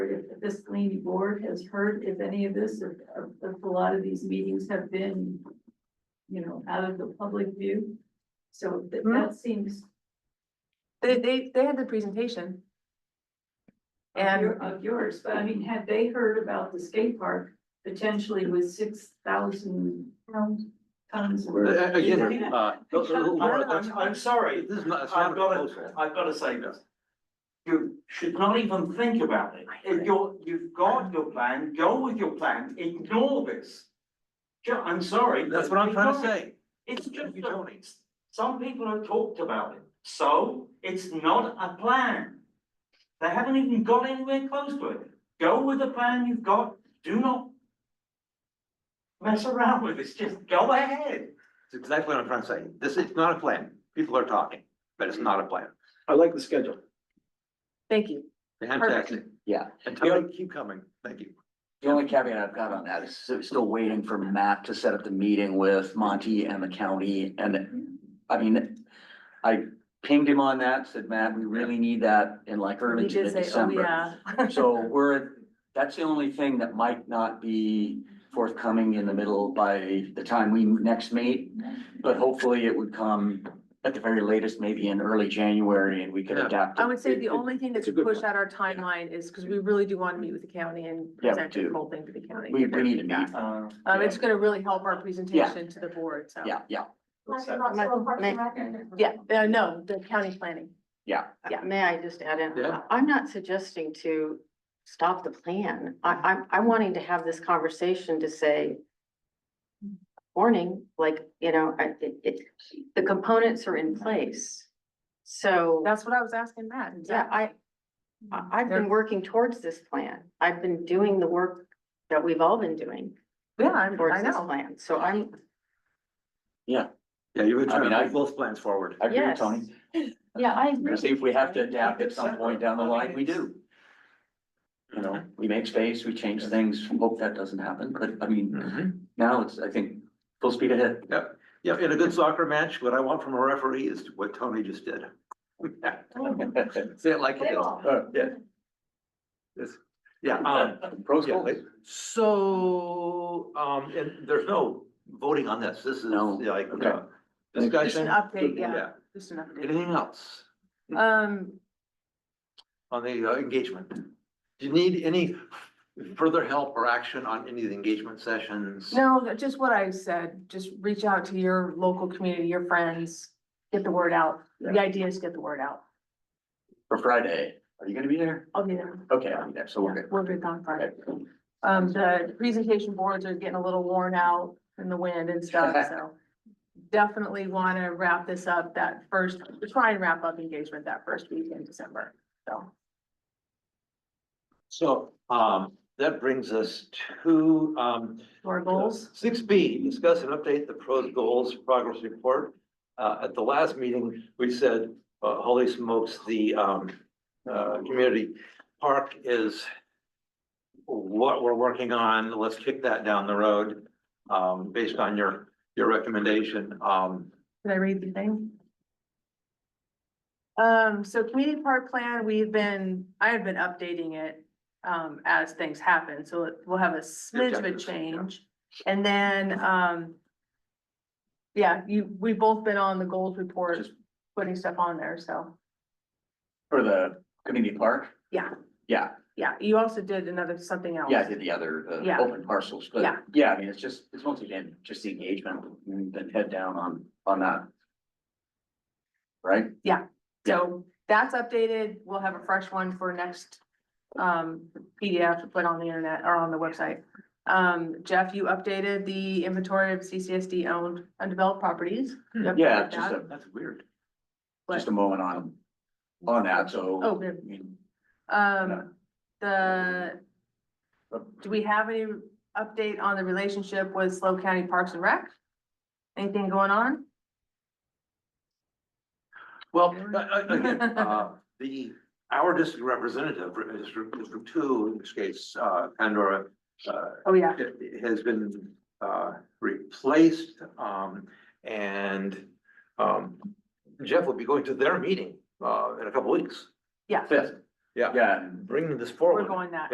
Miscellany Board has heard if any of this, if, if a lot of these meetings have been, you know, out of the public view. So that, Hmm. that seems. They, they, they had the presentation. of And- your- Of yours, but I mean, had they heard about the skate park potentially with six thousand tons worth? A- Again, uh, Laura, that's, I'm, I'm sorry, this is not, it's not a I've got to, proposal. I've got to say this. You should not even think about it. If you're, you've got your plan, go with your plan, ignore this. Ju- I'm sorry. That's but what I'm trying to ignore it. say. It's just, You that don't. some people have talked about it, so it's not a plan. They haven't even got anywhere close to it. Go with the plan you've got, do not mess around with this, just go ahead. It's exactly what I'm trying to say. This, it's not a plan. People are talking, but it's not a plan. I like the schedule. Thank you. Fantastic. Yeah. And tell them, keep coming. Thank you. The only caveat I've got on that is still- still waiting for Matt to set up the meeting with Monty and the county and, I mean, I pinged him on that, said, Matt, we really need that in like early He to did say, oh, mid-December. yeah. So we're, that's the only thing that might not be forthcoming in the middle by the time we next meet. But hopefully it would come at the very latest, maybe in early January and we could Yeah. adapt. it. I would say It- the it- only thing that it's a could good push one. out our timeline is, because we really do want to meet with the county and Yeah, we present the do. whole thing to the county. We, give we their need to feedback. meet. Uh, Um, it's gonna really help our presentation to the board, so. Yeah, yeah, uh, Yeah, uh, no, the county planning. yeah. Yeah. May I just add in? Yeah. I'm not suggesting to stop the plan. I, I'm, I'm wanting to have this conversation to say, warning, like, you know, I, it, it, the components are in place. So, That's what I was Mm-hmm. asking Matt. yeah, I, I- I've been working towards this plan. I've been doing the work that we've all been doing Yeah, I'm- I towards this know. plan. So I'm, Yeah, you've been I trying mean, to I- move both plans forward. I agree, yes. Tony. Yeah, I We'll agree. see if we have to adapt at some point down the line, we do. You know, we make space, we change things, hope that doesn't happen, but I mean, Mhm. now it's, I think, full speed ahead. Yeah, in a good soccer match, what I want from a referee is what Tony just did. Say it like it is. Uh, Yeah. Yeah, um, Pros, yeah, cons. so, um, and there's no voting on this. This is No. like, Okay. uh, Just an discussion. update, yeah, Yeah. just an update. Anything else Um, on the uh, engagement? Do you need any further help or action on any of the engagement sessions? No, that- just what I said, just reach out to your local community, your friends, get the word out. The idea is get the word out. for Friday, are you gonna be there? I'll be there. Okay, I'll be there, so we're Yeah, good. We'll be gone Friday. Okay. Um, the presentation boards are getting a little worn out in the wind and stuff, so definitely want to wrap this up that first, try and wrap up engagement that first week in December, so. So, um, that brings us to, um, Our goals, Six B, discuss and update the pros goals progress report. Uh, at the last meeting, we said, uh, holy smokes, the, um, uh, community park is what we're working on. Let's kick that down the road, um, based on your, your recommendation. Um, Did I read the thing? Um, so community park plan, we've been, I have been updating it, um, as things happen, so it- we'll have a smidge of a Objectives, yeah. change. And then, um, yeah, you, we've both been on the goals report, Just- putting stuff on there, so, For the community park? Yeah. Yeah, yeah, you also did another, something else. yeah, I did the other, the Yeah. open parcels, but Yeah. yeah, I mean, it's just, it's once again, just the engagement, and then head down on, on that. Right? So that's updated, we'll have a fresh one for next um PDF to put on the internet or on the website. Um, Jeff, you updated the inventory of CCSD owned undeveloped properties. You updated Yeah, just that. a, that's weird. just a moment on, on that, so. Oh, good. I mean, Um, the, uh, do we have any update on the relationship with Slow County Parks and Rec? Anything going on? Well, uh, uh, again, uh, the, our district representative, uh, District, District Two, in this case, uh, Pandora, uh, Oh, yeah, it- it has been uh, replaced. um, And um, Jeff will be going to their meeting uh, in a couple weeks, yeah, Fifth. Yeah. Yeah, and bringing this we're forward. going that.